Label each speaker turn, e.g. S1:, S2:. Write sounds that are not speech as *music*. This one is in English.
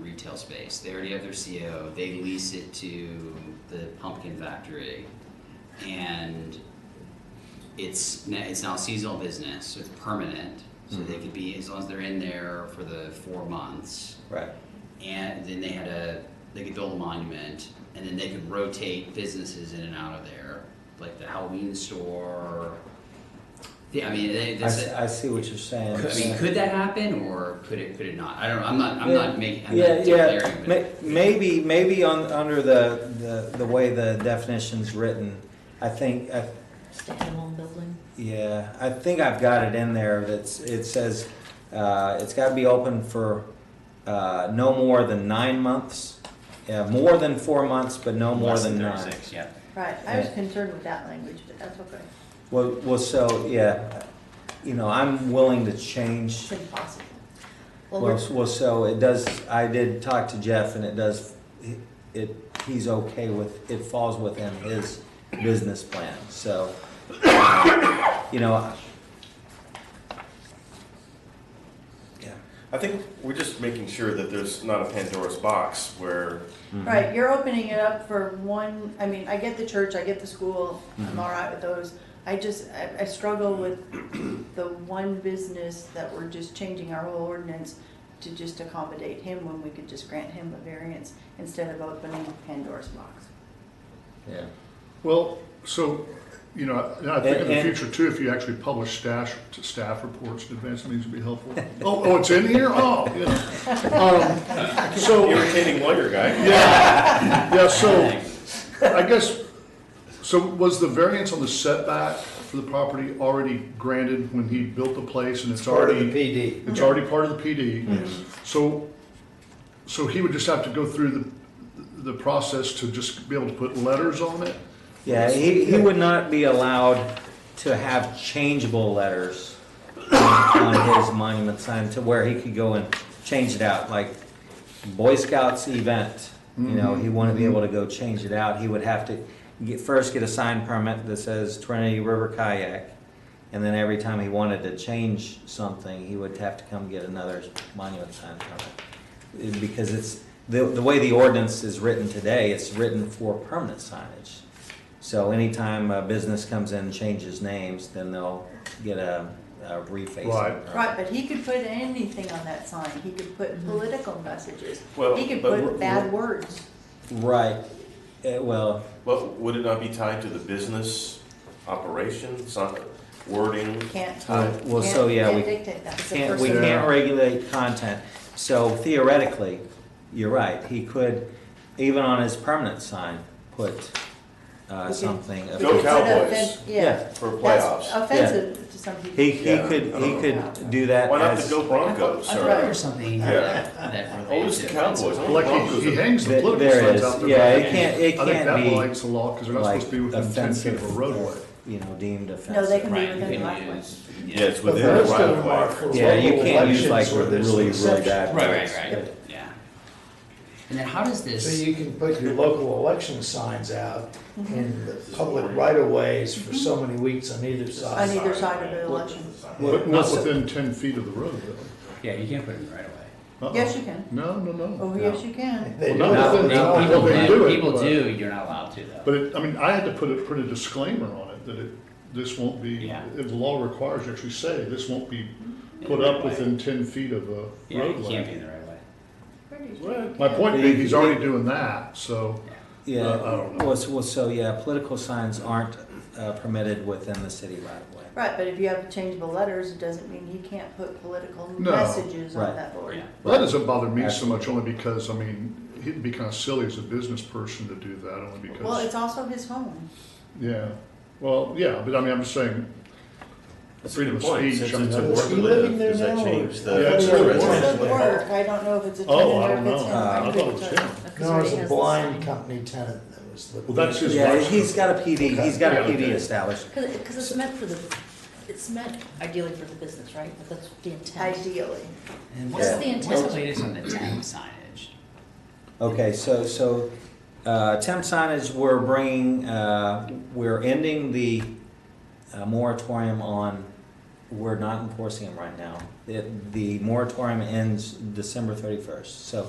S1: retail space. They already have their CO. They lease it to the pumpkin factory, and it's n- it's now a seasonal business. So it's permanent. So they
S2: Mhm.
S1: could be as long as they're in there for the four months,
S2: Right.
S1: and then they had a they could build a monument, and then they could rotate businesses in and out of there, like the Halloween store. Yeah, I mean, they,
S2: I,
S1: this,
S2: see, I see what you're saying.
S1: I mean, could that happen or could it, could it not? I don't, know. I'm not, I'm
S2: Yeah.
S1: not making, I'm
S2: yeah,
S1: not
S2: yeah.
S1: declaring.
S2: May-
S1: but-
S2: Maybe, maybe on under the, the the way the definition's written, I think, I,
S3: Standalone building?
S2: yeah, I think I've got it in there. That's it says uh, it's got to be open for uh, no more than nine months. Yeah, more than four months, but no more
S4: Less
S2: than nine.
S4: 36, Yeah.
S3: Right, I was
S2: Yeah.
S3: concerned with that language, but that's okay.
S2: Well, well, so yeah, you know, I'm willing to change
S3: It's impossible. Well,
S2: Well,
S3: we're,
S2: s- well, so it does, I did talk to Jeff and it does, it- it, he's okay with, it falls within his business plan, so. You know. I- Yeah,
S5: I think we're just making sure that there's not a Pandora's box where
S3: right, you're opening it up for one, I mean, I get the church, I get the school, I'm
S5: Mm-hmm.
S2: Mhm.
S3: all right with those. I just, I, I struggle with *clears throat* the one business that we're just changing our whole ordinance to just accommodate him when we could just grant him a variance instead of opening Pandora's box.
S2: yeah.
S6: Well, so, you know, I I think in the
S2: And- and-
S6: future too, if you actually publish staff, staff reports in advance, it means it'd be
S2: *laughs*
S6: helpful. Oh, oh, it's in here? Oh, yeah. Um, So,
S5: irritating lawyer guy.
S6: yeah, yeah, so, I guess, so was the variance on the setback for the property already granted when he built the place and it's
S2: Part of the
S6: already,
S2: PD.
S6: it's already part of the PD? So, so he would just have to go through the, the process to just be able to put letters on it?
S2: Yeah, he, he would not be allowed to have changeable letters on his monument sign to where he could go and change it out, like Boy Scouts event. You know, he wouldn't be able to go change it out. He would have to get, first get a sign permit that says Trinity River Kayak. And then every time he wanted to change something, he would have to come get another monument sign permit. It- Because it's, the, the way the ordinance is written today, it's written for permanent signage. So anytime a business comes in and changes names, then they'll get a, a refacing.
S6: Right.
S3: Right, but he could put anything on that sign. He could put political messages.
S5: Well,
S3: He could
S5: but we're-
S3: put bad
S5: we're-
S3: words.
S2: Right, Eh, well,
S5: But would it not be tied to the business operation, some wording?
S3: Can't.
S2: Uh, well, so,
S3: can't-
S2: yeah, we
S3: Can't dictate that. It's a
S2: can't, we
S3: personal-
S2: can't regulate content, so theoretically, you're right, he could, even on his permanent sign, put, uh,
S3: Okay.
S2: something. of-
S3: We could put
S5: Cowboys.
S3: offen-
S2: Yeah.
S3: Yeah.
S5: For
S3: That's
S5: playoffs.
S3: Offensive to some people.
S2: He, he
S5: Yeah,
S2: could,
S5: I
S2: he
S5: don't
S2: could do that
S5: Why not the
S2: as,
S5: Go Broncos?
S1: I
S5: or-
S1: thought there was something in
S5: Yeah.
S1: that, that
S5: Oh,
S1: related
S5: it's
S1: to
S5: the Cowboys.
S1: offensive.
S6: Well, Like, he- he hangs the
S2: Th-
S6: political
S2: there
S6: signs
S2: is.
S6: out there.
S2: Yeah,
S6: but
S2: it can't- it
S6: I think
S2: can't
S6: that
S2: be,
S6: violates the law, because they're not supposed to be
S2: like,
S6: within ten feet of a
S2: offensive, uh,
S6: roadway.
S2: you know, deemed
S3: No,
S2: offensive.
S3: they can be
S1: Right, you
S3: within the right
S1: can
S3: way.
S1: use.
S5: Yeah, it's
S7: But
S5: within the
S7: those
S5: right
S7: don't
S5: of
S7: mark
S5: way.
S7: for
S2: Yeah, you
S7: local
S2: can't use like
S7: elections where there's
S2: really,
S7: an
S2: really
S7: exception.
S2: bad.
S1: Right,
S2: words.
S1: right, right, yeah. And then how does
S7: So
S1: this,
S7: you can put your local election signs out in the public right of ways for so many weeks on either
S3: On
S7: side.
S3: either side of the election.
S6: But not within ten feet of the roadway.
S1: yeah, you can't put it in the right away.
S6: Uh-uh.
S3: Yes, you can.
S6: No, no, no.
S3: Oh, yes, you can.
S7: They
S6: Well,
S7: do
S6: not
S7: it.
S6: within-
S7: No.
S6: not within- they do
S1: People do,
S6: it,
S1: people
S6: but-
S1: do, you're not allowed to though.
S6: But it, I mean, I had to put a, put a disclaimer on it, that it, this won't be,
S1: Yeah. Mm-hmm.
S6: if the law requires, you actually say, this won't be put up within ten feet of a
S1: Yeah, it can't be
S6: roadway.
S1: in the right way.
S3: Pretty sure.
S6: Well, My point being, he's already doing that, so,
S2: Yeah,
S6: Uh, I don't know.
S2: well, so- well, so, yeah, political signs aren't uh, permitted within the city right of way.
S3: Right, but if you have changeable letters, it doesn't mean he can't put political
S6: No.
S3: messages
S2: Right.
S3: on that board.
S1: Yeah.
S6: that doesn't bother me so much, only because, I mean, it'd be kind of silly as a business person to do that, only because.
S3: Well, it's also his home.
S6: Yeah, well, yeah, but I mean, I'm just saying,
S5: That's a
S6: freedom
S5: good
S6: of
S5: point,
S6: speech.
S5: since
S6: I mean,
S5: it's a
S6: that's-
S7: Is
S5: word
S7: he
S5: to
S7: living
S5: live,
S7: there
S5: does that
S7: now, or-
S5: change the?
S6: Yeah, it's
S3: It's
S6: a
S3: the
S6: word.
S3: work. I don't know if it's a tenant
S6: Oh, I
S3: or
S6: don't
S3: if it's him.
S6: know.
S2: I
S6: thought it was
S3: couldn't
S6: him.
S3: tell. 'Cause
S7: No, it was
S3: already
S7: a
S3: has the
S7: blind
S3: sign.
S7: company tenant that was living.
S6: Well, that's his
S2: Yeah,
S6: wife's.
S2: he's got a PD, he's got a
S6: Okay.
S2: PD established.
S8: Because, because it's meant for the, it's meant ideally for the business, right? But that's the intent.
S3: Ideally.
S1: And what's,
S2: Yeah.
S1: the- what's the latest on the temp signage?
S2: Okay, so, so, uh, temp signage, we're bringing, uh, we're ending the uh, moratorium on, we're not enforcing them right now. The, the moratorium ends December thirty-first, so